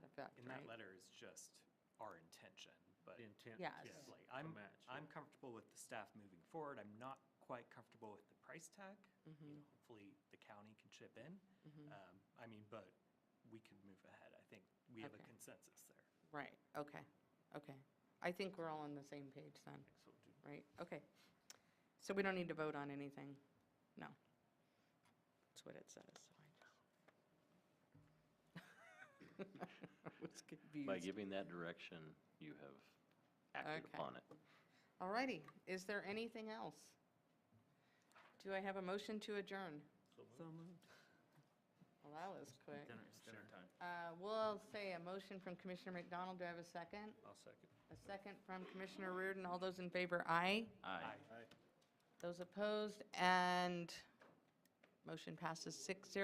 just our intention, but. intent Yes. Yeah, Yes. like, I'm, match, yeah. I'm comfortable with the staff moving forward. I'm not quite comfortable with the price tag. Mm-hmm, You know, hopefully the county can chip in. Um, I mean, but we can move ahead. I think we have a Okay. consensus there. Right, okay, okay. I think we're all on the same page then, So do- right? Okay. So we don't need to vote on anything? No. That's what it says, so I just. I was By confused. giving that direction, you have acted Okay. upon it. All righty, is there anything else? Do I have a motion to adjourn? Well, that was quick. Dinner, dinner time. Uh, We'll say a motion from Commissioner McDonald. Do I have a second? I'll second. A second from Commissioner Reardon. All those in favor, aye. Aye. Aye. Those opposed, and motion passes six zero.